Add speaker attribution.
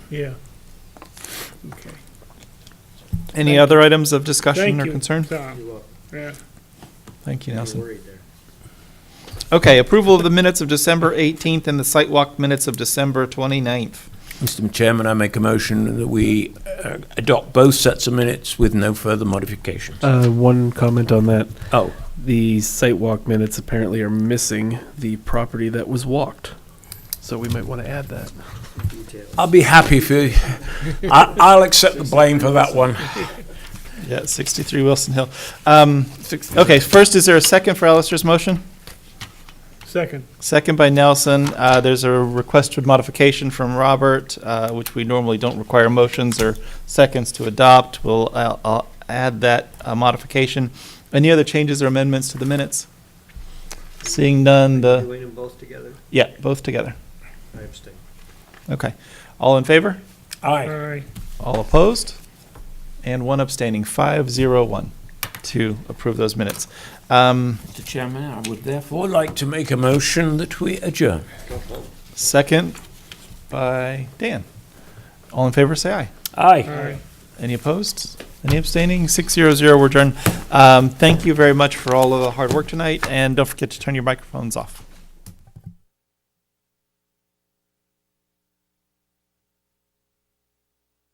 Speaker 1: Yeah. Okay.
Speaker 2: Any other items of discussion
Speaker 1: Thank
Speaker 2: or
Speaker 1: you,
Speaker 2: concern?
Speaker 1: Tom.
Speaker 3: You're welcome.
Speaker 1: Yeah.
Speaker 2: Thank you,
Speaker 3: You're
Speaker 2: Nelson.
Speaker 3: worried there.
Speaker 2: Okay, approval of the minutes of December 18th and the site walk minutes of December 29th.
Speaker 4: Mr. Chairman, I make a motion that we uh, adopt both sets of minutes with no further modifications.
Speaker 5: Uh, one comment on that.
Speaker 4: Oh,
Speaker 5: The site walk minutes apparently are missing the property that was walked. So we might want to add that.
Speaker 3: Details.
Speaker 4: I'll be happy if you, I- I'll accept the blame for that one.
Speaker 2: Yeah, 63 Wilson Hill. Um, Okay, first, is there a second for Alistair's motion?
Speaker 1: Second.
Speaker 2: Second by Nelson. Uh, There's a request for modification from Robert, uh, which we normally don't require motions or seconds to adopt. We'll I'll- I'll add that uh, modification. Any other changes or amendments to the minutes? Seeing
Speaker 3: Are
Speaker 2: none,
Speaker 3: you
Speaker 2: the,
Speaker 3: doing them both together?
Speaker 2: yeah, both together.
Speaker 3: I abstain.
Speaker 2: Okay. All in favor?
Speaker 4: Aye.
Speaker 1: Aye.
Speaker 2: All opposed? And one abstaining, five zero one, to approve those minutes. Um,
Speaker 4: Mr. Chairman, I would therefore like to make a motion that we adjourn.
Speaker 3: Go home.
Speaker 2: Second by Dan. All in favor, say aye.
Speaker 4: Aye.
Speaker 1: Aye.
Speaker 2: Any opposed? Any abstaining? Six zero zero, we're adjourned. Um, Thank you very much for all of the hard work tonight, and don't forget to turn your microphones off.